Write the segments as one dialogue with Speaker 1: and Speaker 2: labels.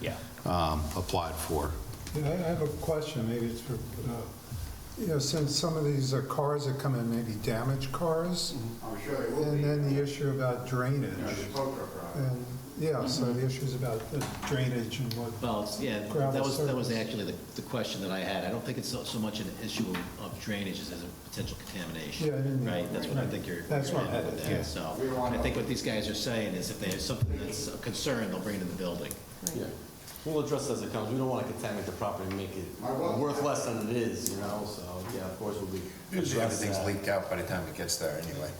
Speaker 1: Yeah.
Speaker 2: um, applied for.
Speaker 3: Yeah, I I have a question, maybe it's for, uh, you know, since some of these uh, cars that come in may be damaged cars,
Speaker 4: I'm Mm-hmm. Oh, sure it will be.
Speaker 3: and then the
Speaker 4: You
Speaker 3: issue about drainage,
Speaker 4: know, the tow truck driver.
Speaker 3: and, yeah, so the issues about the drainage and what,
Speaker 1: Well, it's- yeah, Mm-hmm. that
Speaker 3: Gravel
Speaker 1: was, that was
Speaker 3: surface.
Speaker 1: actually the, the question that I had. I don't think it's so, so much an issue of- of drainage as a potential contamination.
Speaker 3: Yeah, I didn't-
Speaker 1: Right, that's what I
Speaker 3: right.
Speaker 1: think you're,
Speaker 3: That's
Speaker 1: you're
Speaker 3: what I
Speaker 1: at with
Speaker 3: had, yeah.
Speaker 1: that, so.
Speaker 4: We want-
Speaker 1: I think what these guys are saying is if they have something that's a concern, they'll bring it to the building.
Speaker 5: Yeah, we'll address it as it comes. We don't want to contaminate the property and make it
Speaker 4: I will.
Speaker 5: worth less than it is, you know, so, yeah, of course, we'll be.
Speaker 6: Usually
Speaker 5: address
Speaker 6: everything's
Speaker 5: that.
Speaker 6: leaked out by the time it gets there anyway,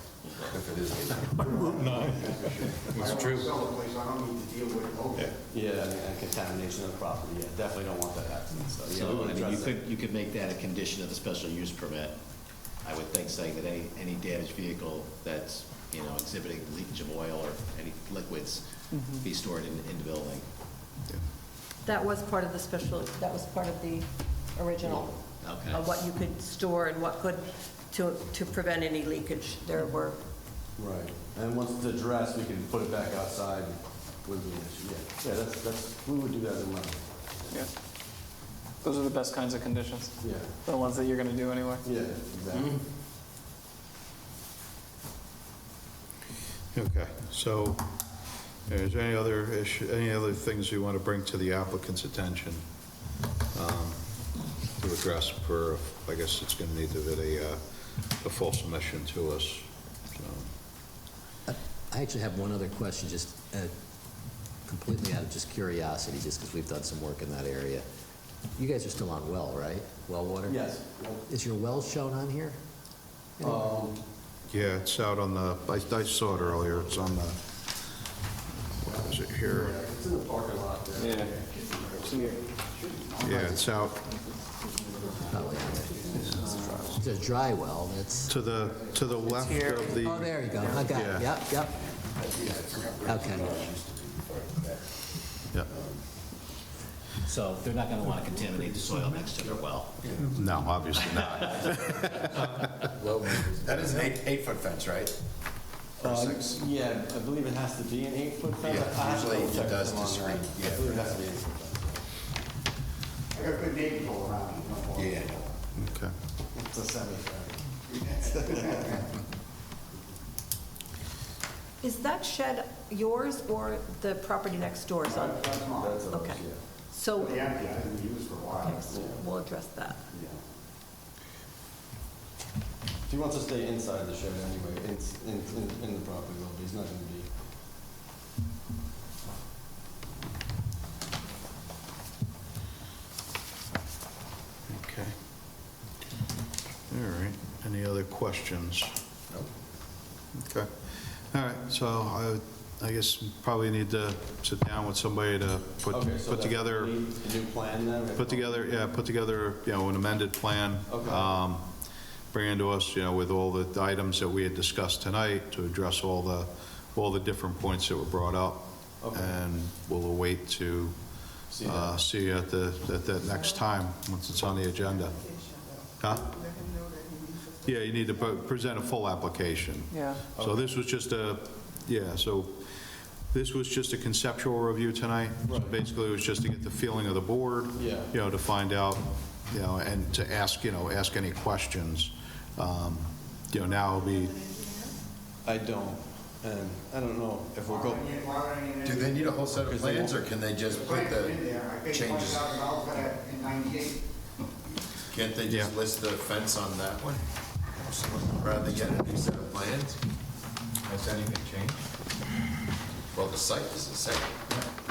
Speaker 6: if it is leaked.
Speaker 4: It's true. I don't sell the place, I don't need to deal with odor.
Speaker 5: Yeah, and- and contamination of the property, yeah, definitely don't want that happening, so, yeah, we
Speaker 1: So,
Speaker 5: will
Speaker 1: I mean, you
Speaker 5: address it.
Speaker 1: could, you could make that a condition of the special use permit, I would think, saying that any, any damaged vehicle that's, you know, exhibiting leakage of oil or any liquids be stored in, in the building.
Speaker 7: That was part of the special, that was part of the original,
Speaker 1: Okay.
Speaker 7: of what you could store and what could, to, to prevent any leakage. There were,
Speaker 5: Right, and once it's addressed, we can put it back outside with the issue, yeah. Yeah, that's, that's, we would do that in mind,
Speaker 8: Yeah. Those are the best kinds of conditions,
Speaker 5: yeah,
Speaker 8: the ones that you're gonna do anyway.
Speaker 5: yeah, exactly.
Speaker 2: Mm-hmm. Okay, so is there any other issue, any other things you want to bring to the applicant's attention um, to address for, I guess it's going to need to be a, uh, a full submission to us, so.
Speaker 9: I actually have one other question, just uh, completely out of just curiosity, just because we've done some work in that area. You guys are still on well, right? Well water?
Speaker 5: Yes,
Speaker 9: Is your well shown on here?
Speaker 5: um,
Speaker 2: Yeah, it's out on the, I I saw it earlier, it's on the, what is it here?
Speaker 5: it's in the parking lot there. Yeah.
Speaker 2: Yeah, it's out
Speaker 9: Probably on it. It's a dry well, that's,
Speaker 2: to the, to the left of the.
Speaker 9: oh, there you go, I got
Speaker 2: Yeah.
Speaker 9: it, yep, yep. Okay,
Speaker 2: Yeah.
Speaker 1: So they're not going to want to contaminate the soil next to their well.
Speaker 2: No, obviously not.
Speaker 6: That is an eight, eight-foot fence, right? Or
Speaker 5: Uh,
Speaker 6: six?
Speaker 5: Yeah, I believe it has to be an eight-foot fence.
Speaker 6: Yeah,
Speaker 5: I have to
Speaker 6: usually
Speaker 5: double
Speaker 6: it
Speaker 5: check
Speaker 6: does
Speaker 5: them on
Speaker 6: to
Speaker 5: that.
Speaker 6: screen, yeah.
Speaker 5: I believe it has to be an eight-foot fence.
Speaker 4: I got good neighbors all around me. no more.
Speaker 6: Yeah.
Speaker 2: Okay.
Speaker 5: It's a semi-trailer.
Speaker 7: is that shed yours or the property next door's on?
Speaker 4: That's mine.
Speaker 5: That's ours,
Speaker 7: Okay.
Speaker 5: yeah.
Speaker 7: So,
Speaker 4: The empty, I didn't use for a
Speaker 7: okay,
Speaker 4: while.
Speaker 7: so we'll address that.
Speaker 5: Yeah. He wants to stay inside the shed anyway, it's in, in- in the property, though, but he's not gonna be.
Speaker 2: Okay. All right, any other questions? Okay, all right, so I, I guess probably need to sit down with somebody to put,
Speaker 5: Okay, so
Speaker 2: put
Speaker 5: that
Speaker 2: together,
Speaker 5: would be The new plan then?
Speaker 2: put together, yeah, put together, you know, an amended plan.
Speaker 5: Okay.
Speaker 2: um, Bring into us, you know, with all the items that we had discussed tonight to address all the, all the different points that were brought up.
Speaker 5: Okay.
Speaker 2: And we'll await to
Speaker 5: See you
Speaker 2: uh,
Speaker 5: then.
Speaker 2: see you at the, at that next time, once it's on the agenda. Huh? Yeah, you need to pre- present a full application.
Speaker 8: Yeah.
Speaker 2: So this was just a, yeah, so this was just a conceptual review tonight. So
Speaker 5: Right.
Speaker 2: Basically, it was just to get the feeling of the board.
Speaker 5: Yeah.
Speaker 2: You know, to find out, you know, and to ask, you know, ask any questions. Um, You know, now it'll be,
Speaker 5: I don't, and I don't know if we'll
Speaker 4: Why
Speaker 5: go,
Speaker 4: would I need- why would I need
Speaker 6: Do
Speaker 4: any-
Speaker 6: they need a whole set of plans, or can they
Speaker 4: The
Speaker 6: just put
Speaker 4: plans are
Speaker 6: the
Speaker 4: in there. I paid
Speaker 6: changes?
Speaker 4: $20,000 for that in 98.
Speaker 6: Can't they just
Speaker 2: Yeah.
Speaker 6: list the fence on that one? Rather than get a new set of plans? Has anything changed? Well, the site is the same.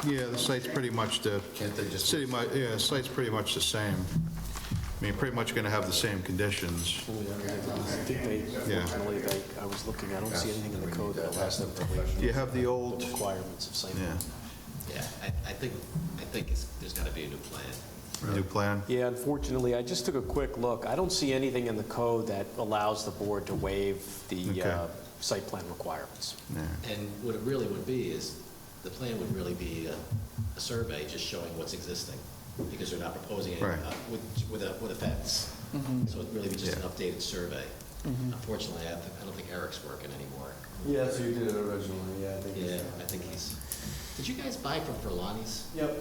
Speaker 2: yeah, the site's pretty much the,
Speaker 6: Can't they just?
Speaker 2: city, mu- yeah, the site's pretty much the same. I mean, pretty much going to have the same conditions. Yeah.
Speaker 10: Unfortunately, I, I was looking, I don't see anything in the code that allows them to waive
Speaker 2: Do you have the
Speaker 10: the
Speaker 2: old?
Speaker 10: requirements of site.
Speaker 2: Yeah,
Speaker 1: Yeah, I, I think, I think it's, there's got to be a new plan.
Speaker 2: new plan?
Speaker 10: Yeah, unfortunately, I just took a quick look. I don't see anything in the code that allows the board to waive the
Speaker 2: Okay.
Speaker 10: uh, site plan requirements.
Speaker 2: Yeah.
Speaker 1: And what it really would be is, the plan would really be a, a survey just showing what's existing, because they're not proposing it
Speaker 2: Right.
Speaker 1: uh, with, with a, with a fence. So it'd really be just an
Speaker 2: Yeah.
Speaker 1: updated survey. Unfortunately, I don't- I don't think Eric's working anymore.
Speaker 5: yeah, so you did it originally, yeah, I think. you
Speaker 1: Yeah,
Speaker 5: said.
Speaker 1: I think he's, did you guys buy from Verlani's?
Speaker 5: Yep.